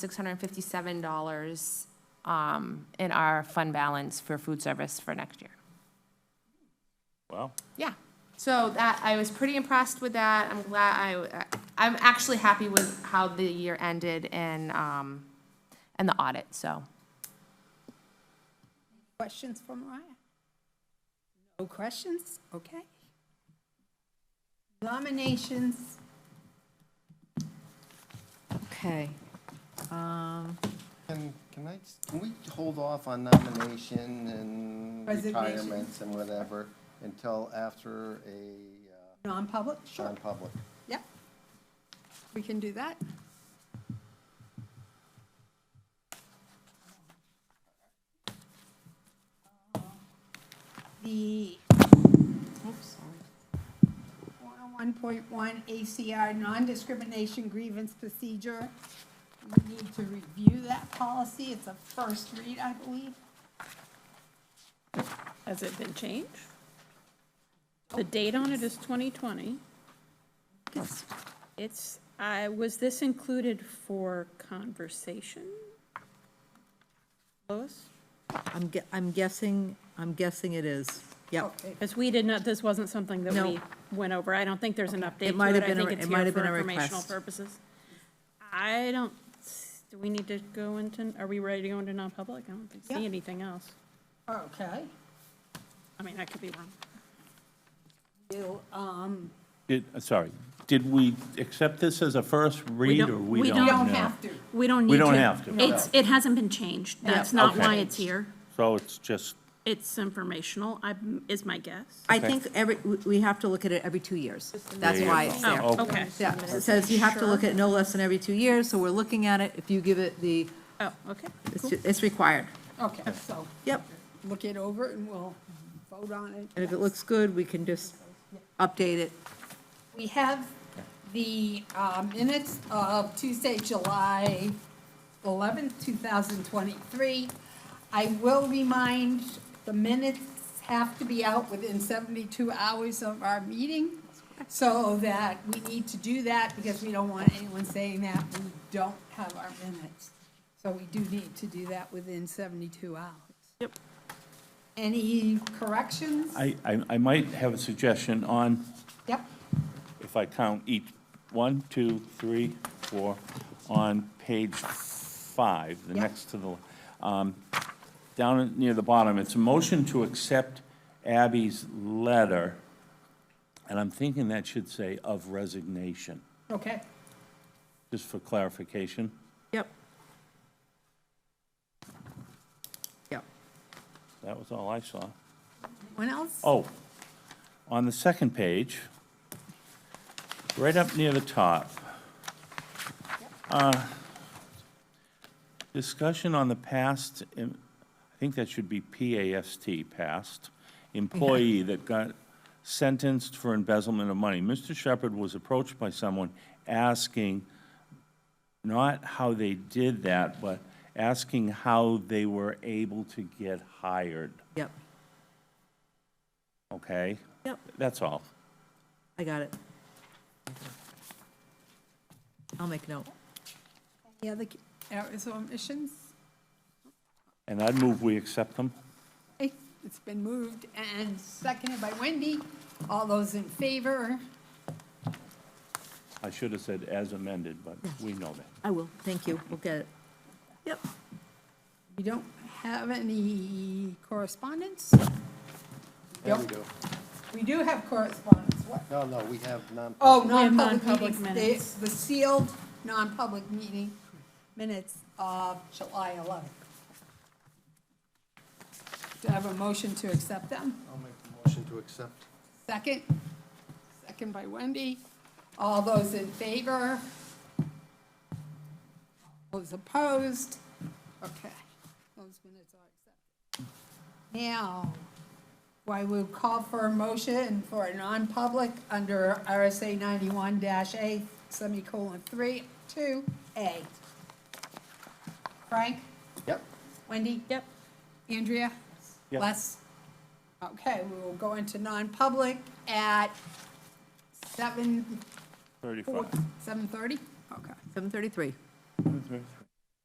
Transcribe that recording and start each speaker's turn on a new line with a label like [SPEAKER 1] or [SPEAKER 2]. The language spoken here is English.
[SPEAKER 1] $657 um, in our fund balance for food service for next year.
[SPEAKER 2] Wow.
[SPEAKER 1] Yeah, so that, I was pretty impressed with that, I'm glad, I, I'm actually happy with how the year ended and, um, and the audit, so.
[SPEAKER 3] Questions for Mariah? No questions? Okay. Nominations,
[SPEAKER 4] Okay. Um,
[SPEAKER 5] Can, can I, s- can we hold off on nomination and
[SPEAKER 3] Resignation.
[SPEAKER 5] retirements and whatever until after a
[SPEAKER 3] non-public?
[SPEAKER 5] uh,
[SPEAKER 4] Um,
[SPEAKER 5] non-public?
[SPEAKER 3] Yep. We can do that. The
[SPEAKER 4] oops, sorry.
[SPEAKER 3] 101.1 ACR non-discrimination grievance procedure. We need to review that policy. It's a first read, I believe.
[SPEAKER 6] Has it been changed? The date on it is 2020. It's, I, was this included for conversation? Lois?
[SPEAKER 4] I'm, gue- I'm guessing, I'm guessing it is. Yep.
[SPEAKER 3] Okay.
[SPEAKER 6] Because we did not, this wasn't something that we
[SPEAKER 4] No.
[SPEAKER 6] went over. I don't think there's an update
[SPEAKER 4] might
[SPEAKER 6] to it.
[SPEAKER 4] have
[SPEAKER 6] I
[SPEAKER 4] been a
[SPEAKER 6] think
[SPEAKER 4] re-
[SPEAKER 6] it's
[SPEAKER 4] it might
[SPEAKER 6] here
[SPEAKER 4] have
[SPEAKER 6] for
[SPEAKER 4] been a
[SPEAKER 6] informational
[SPEAKER 4] request.
[SPEAKER 6] purposes. I don't, s- do we need to go into, are we ready to go into non-public? I don't think- see
[SPEAKER 3] Yeah.
[SPEAKER 6] anything else.
[SPEAKER 3] Okay.
[SPEAKER 6] I mean, I could be wrong.
[SPEAKER 3] You, um,
[SPEAKER 2] Did, uh, sorry, did we accept this as a first read
[SPEAKER 6] don't-
[SPEAKER 2] or we
[SPEAKER 6] we
[SPEAKER 2] don't?
[SPEAKER 6] don't
[SPEAKER 3] don't
[SPEAKER 2] know?
[SPEAKER 3] have to.
[SPEAKER 6] We don't need
[SPEAKER 2] We
[SPEAKER 6] to.
[SPEAKER 2] don't have to.
[SPEAKER 6] It's, it hasn't been changed. That's not why it's here.
[SPEAKER 2] So it's just,
[SPEAKER 6] It's informational, I, is my guess.
[SPEAKER 4] I think every, we- we have to look at it every two years. That's
[SPEAKER 2] There you
[SPEAKER 4] why
[SPEAKER 2] go.
[SPEAKER 4] it's there.
[SPEAKER 6] Oh, okay,
[SPEAKER 4] Yeah, it says you have to look at no less than every two years, so we're looking at it. If you give it the,
[SPEAKER 6] oh, okay,
[SPEAKER 4] it's,
[SPEAKER 6] cool.
[SPEAKER 4] ju- it's required.
[SPEAKER 3] Okay, so
[SPEAKER 4] Yep.
[SPEAKER 3] look it over and we'll vote on it.
[SPEAKER 4] And if it looks good, we can just update it.
[SPEAKER 3] We have the uh, minutes of Tuesday, July 11th, 2023. I will remind, the minutes have to be out within 72 hours of our meeting, so that we need to do that, because we don't want anyone saying that we don't have our minutes. So we do need to do that within 72 hours.
[SPEAKER 6] Yep.
[SPEAKER 3] Any corrections?
[SPEAKER 2] I, I, I might have a suggestion on,
[SPEAKER 3] Yep,
[SPEAKER 2] if I count each, one, two, three, four, on page five, the
[SPEAKER 3] Yeah.
[SPEAKER 2] next to the, um, down at- near the bottom, it's a motion to accept Abby's letter. And I'm thinking that should say of resignation,
[SPEAKER 3] okay.
[SPEAKER 2] just for clarification.
[SPEAKER 4] Yep. Yep.
[SPEAKER 2] That was all I saw.
[SPEAKER 3] Anyone else?
[SPEAKER 2] Oh, on the second page, right up near the top. uh, Discussion on the past, em- I think that should be P-A-S-T, past, employee that got sentenced for embezzlement of money. Mr. Shepherd was approached by someone asking, not how they did that, but asking how they were able to get hired,
[SPEAKER 4] Yep.
[SPEAKER 2] okay?
[SPEAKER 4] Yep.
[SPEAKER 2] That's all.
[SPEAKER 4] I got it. I'll make note.
[SPEAKER 3] Any other errors or omissions?
[SPEAKER 2] And I'd move we accept them.
[SPEAKER 3] Okay, It's been moved and seconded by Wendy. All those in favor?
[SPEAKER 2] I should have said as amended, but we know that.
[SPEAKER 4] I will. Thank you. We'll get it. Yep.
[SPEAKER 3] We don't have any correspondence?
[SPEAKER 5] There
[SPEAKER 3] Yep.
[SPEAKER 5] we go.
[SPEAKER 3] We do have correspondence. What?
[SPEAKER 5] No, no, we have non-public.
[SPEAKER 3] Oh,
[SPEAKER 6] We have
[SPEAKER 3] non-public
[SPEAKER 6] non-public
[SPEAKER 3] meetings.
[SPEAKER 6] minutes.
[SPEAKER 3] The the sealed non-public meeting minutes of July 11th. Do I have a motion to accept them?
[SPEAKER 5] I'll make the motion to accept.
[SPEAKER 3] Second? Second by Wendy. All those in favor? Those opposed? Okay. Those minutes are accepted. Now, I will call for a motion for a non-public under RSA 91-A, semicolon, 3, 2A. Frank?
[SPEAKER 5] Yep.
[SPEAKER 3] Wendy?
[SPEAKER 6] Yep.
[SPEAKER 3] Andrea?
[SPEAKER 2] Yeah.
[SPEAKER 3] Les? Okay, we will go into non-public at seven,
[SPEAKER 2] Thirty-five.
[SPEAKER 3] seven thirty? Okay.
[SPEAKER 4] Seven thirty-three.